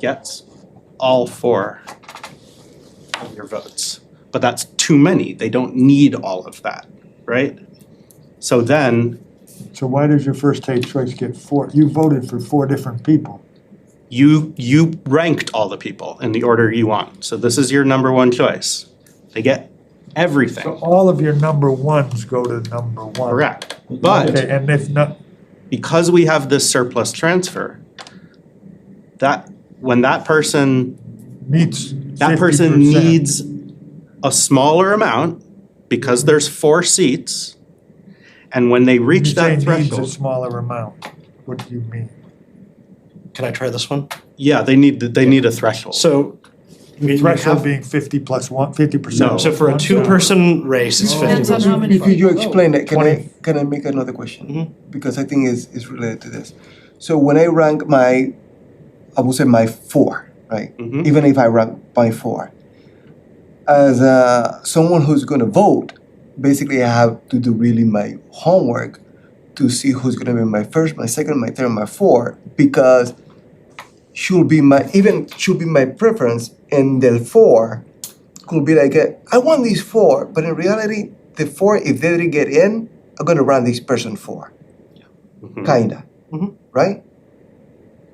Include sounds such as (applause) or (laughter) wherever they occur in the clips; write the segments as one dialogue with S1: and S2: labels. S1: gets all four of your votes. But that's too many, they don't need all of that, right? So then
S2: So why does your first take choice get four? You voted for four different people.
S1: you you ranked all the people in the order you want. So this is your number one choice. They get
S2: So
S1: everything.
S2: all of your number ones go to number one.
S1: Correct. But
S2: Okay, and if not,
S1: because we have this surplus transfer, that when that person
S2: meets
S1: that person
S2: 50%.
S1: needs a smaller amount because there's four seats and when they
S2: You
S1: reach
S2: say
S1: that
S2: needs a
S1: threshold
S2: smaller amount. What do you mean?
S3: Can I try this one?
S1: yeah they need they need a threshold
S3: So. we- we
S2: Threshold
S3: have-
S2: being fifty plus one, fifty
S1: No.
S2: percent.
S3: So for a two-person race, it's fifty
S4: Depends on
S3: percent.
S4: how many.
S5: Could you
S4: vote.
S5: explain that? Can
S3: Twenty.
S5: I, can I make another question?
S3: Mhm.
S5: Because I think it's, it's related to this. So when I rank my, I will say my four, right?
S1: Mhm.
S5: Even if I rank by four, as uh, someone who's going to vote, basically I have to do really my homework to see who's going to be my first, my second, my third, my four, because should be my even should be my preference, and the four could be like a, I want these four, but in reality, the four if they didn't get in, I'm gonna run this person 4
S1: Mhm.
S5: kinda,
S3: Mhm.
S5: right?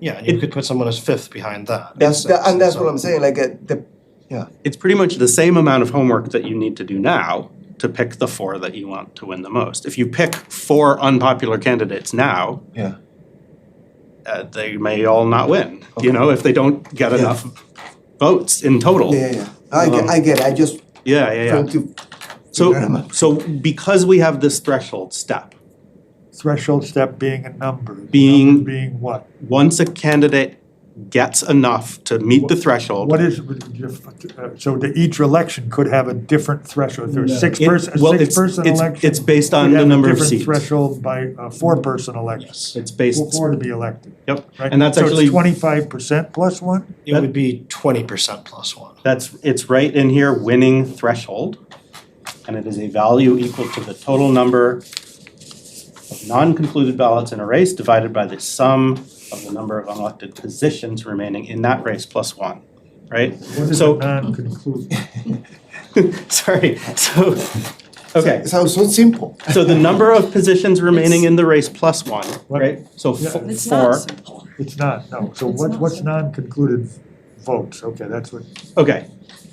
S3: Yeah, and you could put someone as fifth behind that. Makes
S5: That's that, and
S3: sense.
S5: that's what I'm saying. Like a, the
S1: it's pretty much the same amount of homework that you need to do now to pick the four that you want to win the most. If you pick four unpopular candidates now,
S5: yeah.
S1: uh, they may all not win, you
S5: Okay.
S1: know, if they don't get
S5: Yeah.
S1: enough votes in total.
S5: Yeah, yeah, yeah. I get, I get. It. I just
S1: Yeah, yeah, yeah.
S5: trying to. figure them
S1: So,
S5: out.
S1: so because we have this threshold step,
S2: Threshold step being a number. The
S1: Being-
S2: number Being what?
S1: once a candidate gets enough to meet the threshold,
S2: What is, so the each election could have a different threshold, If there's six
S1: It-
S2: person,
S1: well,
S2: six
S1: it's-
S2: person
S1: it's-
S2: election.
S1: it's based on
S2: could
S1: the
S2: have a
S1: number of seats.
S2: Different threshold by a four person election,
S1: it's based,
S2: for four to be elected,
S1: yep.
S2: right?
S1: And that's actually,
S2: So it's twenty-five percent plus one?
S3: It would be twenty percent plus one.
S1: that's, it's right in here, winning threshold. And it is a value equal to the total number of non-concluded ballots in a race divided by the sum of the number of unelected positions remaining in that race plus one, right?
S2: What is a
S1: So-
S2: non-conclusive?
S1: (laughs) Sorry, so, okay,
S5: It sounds so simple.
S1: so the number of positions remaining in the race plus one,
S2: What?
S1: right? So fo- four.
S4: It's not simple.
S2: It's not, no. So
S4: It's
S2: what,
S4: not
S2: what's
S4: simple.
S2: non-concluded votes? Okay, that's what,
S1: Okay,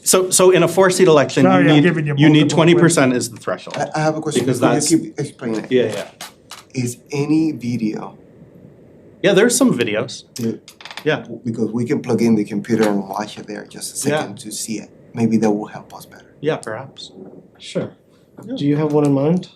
S1: so, so in a four-seat election, you
S2: Sorry, I'm
S1: need,
S2: giving you
S1: you need
S2: multiple
S1: twenty percent is the threshold.
S5: I, I have a question.
S1: Because
S5: Could
S1: that's-
S5: you keep explaining it?
S1: Yeah, yeah.
S5: Is any video
S1: Yeah, there's some videos.
S5: the-
S1: Yeah.
S5: because we can plug in the computer and watch it there just a
S1: Yeah.
S5: second to see it. Maybe that will help us better.
S1: Yeah, perhaps.
S3: Sure.
S1: Yeah.
S3: Do you have one in mind?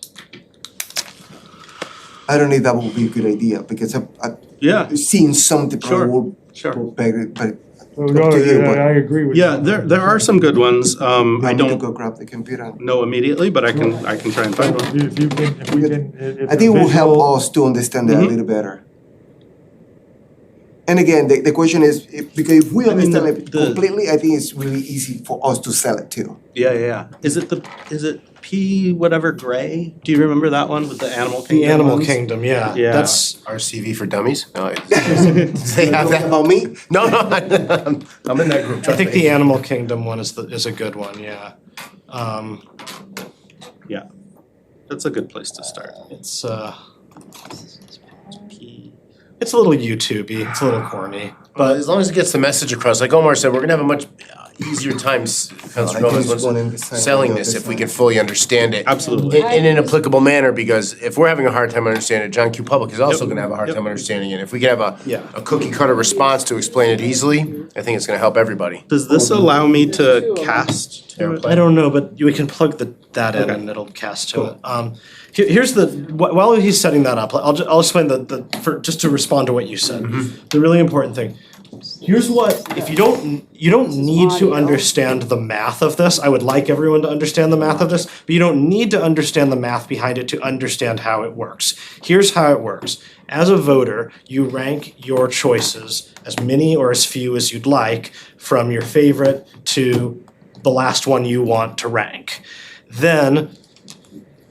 S5: I don't know if that would be a good idea because I, I,
S1: Yeah, (laughs)
S5: seeing something
S1: Sure.
S5: probably
S1: sure.
S5: will better, but
S2: oh,
S5: Up
S2: no,
S5: to you,
S2: yeah,
S5: but-
S2: I agree with you.
S1: Yeah, there, there are some good ones. Um, I
S5: I need to
S1: don't
S5: go grab the computer. and-
S1: know immediately, but I can, I can try and find one.
S2: If you- if you can, if we can, if
S5: I
S2: the
S5: think it will help
S2: visual-
S5: us to understand that
S1: Mhm.
S5: a little better. And again, the, the question is if, because if we
S1: I mean,
S5: understand
S1: the-
S5: it
S1: the-
S5: completely, I think it's really easy for us to sell it too.
S1: Yeah, yeah, yeah. Is it the, is it P whatever Gray? Do you remember that one with the animal kingdom?
S3: The Animal
S1: ones?
S3: Kingdom, yeah.
S1: Yeah.
S3: That's
S6: RCV for dummies? No, I- (laughs)
S5: (laughs)
S6: they have
S5: Talking
S6: that.
S5: about me?
S6: No, no, I'm- I'm in that group.
S3: I think
S6: trust me.
S3: the Animal Kingdom one is the is a good one, yeah. Um
S1: That's a good place to start.
S3: it's uh it's a little YouTubey, it's a little corny.
S6: But as long as it gets the message across, like Omar said, we're gonna have a much easier time, s-
S5: I
S6: Counselor
S5: think
S6: Gomez,
S5: it's
S6: once-
S5: going in the same
S6: selling
S5: way,
S6: this if we
S5: this
S6: can fully understand it.
S1: Absolutely.
S6: In, in an applicable manner, because if we're having a hard time understanding it, John Q. Public is also gonna have a hard time understanding it. If we can have a,
S3: Yeah.
S6: a cookie cutter response to explain it easily, I think it's gonna help everybody.
S1: Does this allow me to cast to it?
S6: Airplane.
S3: I don't know, but we can plug the, that in
S1: Okay.
S3: and it'll cast to it. Um, here, here's the, wh- while he's setting that up, I'll, ju- I'll explain the, the, for, just to respond to what you said. The really important thing. Here's what, if you don't, you don't need to
S4: audio.
S3: understand the math of this, I would like everyone to understand the math of this, but you don't need to understand the math behind it to understand how it works. Here's how it works. As a voter, you rank your choices, as many or as few as you'd like, from your favorite to the last one you want to rank. Then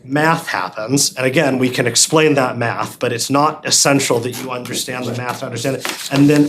S3: math happens, and again, we can explain that math, but it's not essential that you understand the math to understand it. And then